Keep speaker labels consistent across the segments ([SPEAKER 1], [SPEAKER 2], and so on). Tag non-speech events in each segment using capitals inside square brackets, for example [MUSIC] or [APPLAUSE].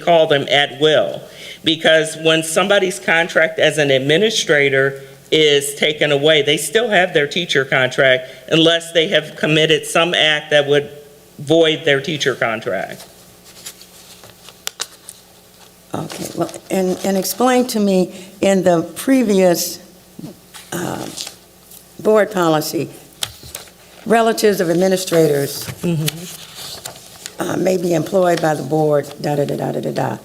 [SPEAKER 1] call them at will. Because when somebody's contract as an administrator is taken away, they still have their teacher contract unless they have committed some act that would void their teacher contract.
[SPEAKER 2] Okay, well, and, and explain to me, in the previous um, board policy, relatives of administrators uh, may be employed by the board, da-da-da-da-da-da.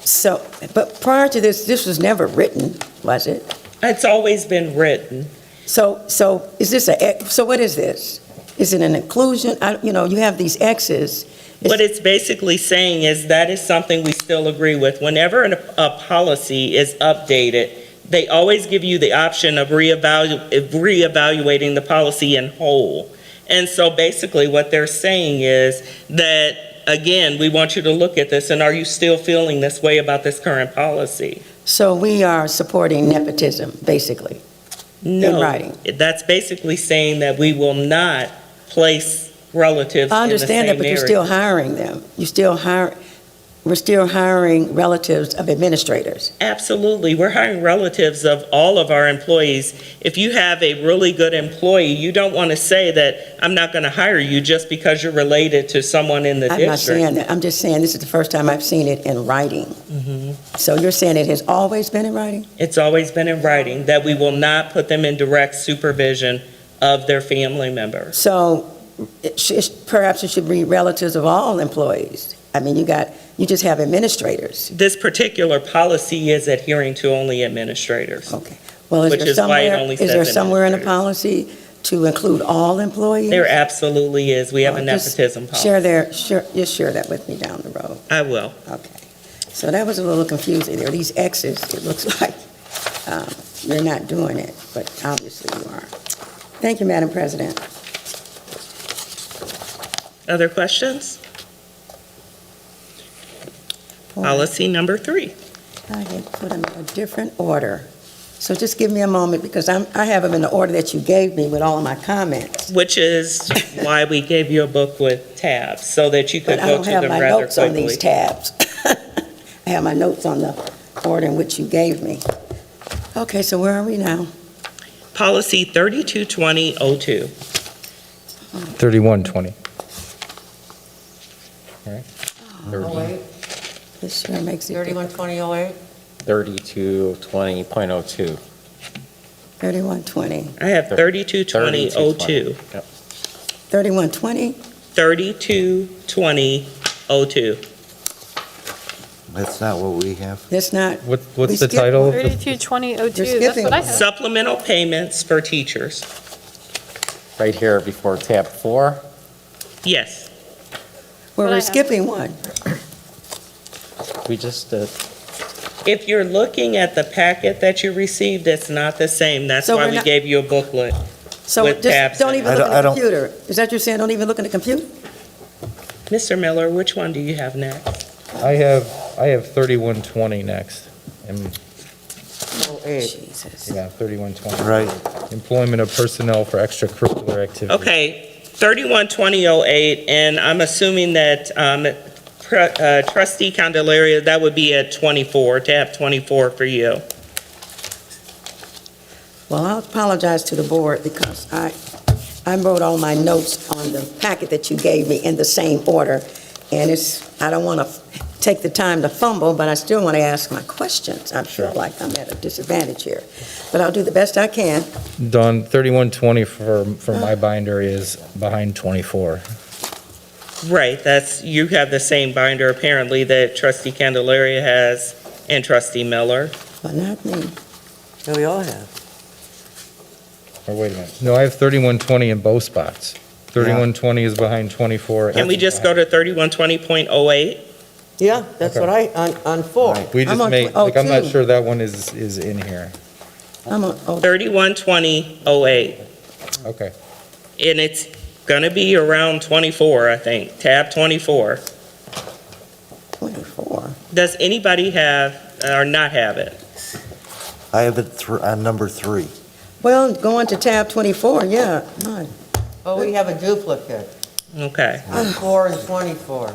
[SPEAKER 2] So, but prior to this, this was never written, was it?
[SPEAKER 1] It's always been written.
[SPEAKER 2] So, so is this a, so what is this? Is it an inclusion? I- You know, you have these X's.
[SPEAKER 1] What it's basically saying is that is something we still agree with. Whenever an- a policy is updated, they always give you the option of reevalu- of reevaluating the policy in whole. And so basically, what they're saying is that, again, we want you to look at this, and are you still feeling this way about this current policy?
[SPEAKER 2] So we are supporting nepotism, basically.
[SPEAKER 1] No.
[SPEAKER 2] writing.
[SPEAKER 1] That's basically saying that we will not place relatives
[SPEAKER 2] I
[SPEAKER 1] in the
[SPEAKER 2] understand that,
[SPEAKER 1] same
[SPEAKER 2] but you're
[SPEAKER 1] area.
[SPEAKER 2] still hiring them. You're still hire, we're still hiring relatives of administrators.
[SPEAKER 1] Absolutely. We're hiring relatives of all of our employees. If you have a really good employee, you don't want to say that, I'm not going to hire you just because you're related to someone in the
[SPEAKER 2] I'm not
[SPEAKER 1] district.
[SPEAKER 2] saying that, I'm just saying this is the first time I've seen it in writing.
[SPEAKER 1] Mm-hmm.
[SPEAKER 2] So you're saying it has always been in writing?
[SPEAKER 1] It's always been in writing that we will not put them in direct supervision of their family members.
[SPEAKER 2] So it sh- perhaps it should be relatives of all employees. I mean, you got, you just have administrators.
[SPEAKER 1] This particular policy is adhering to only administrators.
[SPEAKER 2] Okay. Well, is
[SPEAKER 1] Which
[SPEAKER 2] there
[SPEAKER 1] is why it
[SPEAKER 2] somewhere,
[SPEAKER 1] only
[SPEAKER 2] is
[SPEAKER 1] says
[SPEAKER 2] there somewhere in the
[SPEAKER 1] administrators.
[SPEAKER 2] policy to include all employees?
[SPEAKER 1] There absolutely is. We have a
[SPEAKER 2] Oh, just
[SPEAKER 1] nepotism policy.
[SPEAKER 2] Share their, share, just share that with me down the road.
[SPEAKER 1] I will.
[SPEAKER 2] Okay, so that was a little confusing, there are these X's, it looks [LAUGHS] like um, you're not doing it, but obviously you are. Thank you, Madam President.
[SPEAKER 1] Other questions?
[SPEAKER 2] Oh.
[SPEAKER 1] Policy number three.
[SPEAKER 2] I had put them in a different order, so just give me a moment, because I'm, I have them in the order that you gave me with all of my comments.
[SPEAKER 1] Which is why we gave you a book with tabs, so that you could
[SPEAKER 2] But I
[SPEAKER 1] go
[SPEAKER 2] don't
[SPEAKER 1] to
[SPEAKER 2] have
[SPEAKER 1] them
[SPEAKER 2] my
[SPEAKER 1] rather
[SPEAKER 2] notes on these
[SPEAKER 1] quickly.
[SPEAKER 2] tabs. [LAUGHS] I have my notes on the order in which you gave me. Okay, so where are we now?
[SPEAKER 1] Policy 322002.
[SPEAKER 3] 3120.
[SPEAKER 4] Oh eight,
[SPEAKER 2] This sure makes it,
[SPEAKER 4] thirty-one twenty oh eight.
[SPEAKER 5] 3220.02.
[SPEAKER 2] 3120,
[SPEAKER 1] I have 322002.
[SPEAKER 2] 3120?
[SPEAKER 1] 322002.
[SPEAKER 6] That's not what we have.
[SPEAKER 2] That's not,
[SPEAKER 3] What,
[SPEAKER 2] We
[SPEAKER 3] what's the
[SPEAKER 2] skipped
[SPEAKER 3] title? of the-
[SPEAKER 7] 322002,
[SPEAKER 2] You're
[SPEAKER 7] that's
[SPEAKER 2] skipping
[SPEAKER 7] what I
[SPEAKER 2] one.
[SPEAKER 7] have.
[SPEAKER 1] Supplemental payments for teachers.
[SPEAKER 5] Right here before tab four,
[SPEAKER 1] Yes,
[SPEAKER 2] well,
[SPEAKER 7] What I
[SPEAKER 2] we're
[SPEAKER 7] have.
[SPEAKER 2] skipping one.
[SPEAKER 5] we just, uh,
[SPEAKER 1] if you're looking at the packet that you received, it's not the same. That's
[SPEAKER 2] So
[SPEAKER 1] why
[SPEAKER 2] we're
[SPEAKER 1] we
[SPEAKER 2] not-
[SPEAKER 1] gave you a booklet.
[SPEAKER 2] So
[SPEAKER 1] With tabs
[SPEAKER 2] just don't
[SPEAKER 1] in it.
[SPEAKER 2] even
[SPEAKER 6] I
[SPEAKER 2] look at
[SPEAKER 6] don't- I
[SPEAKER 2] the
[SPEAKER 6] don't-
[SPEAKER 2] computer. Is that you're saying, don't even look at the computer?
[SPEAKER 1] Mr. Miller, which one do you have next?
[SPEAKER 3] I have, I have 3120 next. And,
[SPEAKER 2] Jesus.
[SPEAKER 3] yeah, 3120.
[SPEAKER 6] Right,
[SPEAKER 3] Employment of personnel for extracurricular activities.
[SPEAKER 1] Okay, 312008, and I'm assuming that um, pre- uh, trustee Candelaria, that would be at 24, tab 24 for you.
[SPEAKER 2] Well, I apologize to the board because I, I wrote all my notes on the packet that you gave me in the same order. And it's, I don't want to take the time to fumble, but I still want to ask my questions. I feel like I'm at a disadvantage here. But I'll do the best I can.
[SPEAKER 3] Don, 3120 for, for my binder is behind 24.
[SPEAKER 1] Right, that's, you have the same binder apparently that trustee Candelaria has and trustee Miller.
[SPEAKER 2] Well, not me.
[SPEAKER 4] we all have.
[SPEAKER 3] Or wait a minute. No, I have 3120 in both spots. 3120 is behind 24.
[SPEAKER 1] Can we just go to 3120.08?
[SPEAKER 4] Yeah, that's
[SPEAKER 3] Okay.
[SPEAKER 4] what I, on, on four.
[SPEAKER 6] right.
[SPEAKER 3] We
[SPEAKER 2] I'm
[SPEAKER 3] just
[SPEAKER 2] on
[SPEAKER 3] made,
[SPEAKER 2] tw- oh,
[SPEAKER 3] like, I'm not
[SPEAKER 2] two.
[SPEAKER 3] sure that one is, is in here.
[SPEAKER 2] I'm on, oh,
[SPEAKER 1] 3120.08,
[SPEAKER 3] Okay.
[SPEAKER 1] and it's going to be around 24, I think, tab 24.
[SPEAKER 2] 24.
[SPEAKER 1] Does anybody have or not have it?
[SPEAKER 6] I have it thr- on number three.
[SPEAKER 2] Well, going to tab 24, yeah, my
[SPEAKER 4] Oh, we have a duplicate.
[SPEAKER 1] Okay.
[SPEAKER 4] Four and twenty-four.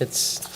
[SPEAKER 5] It's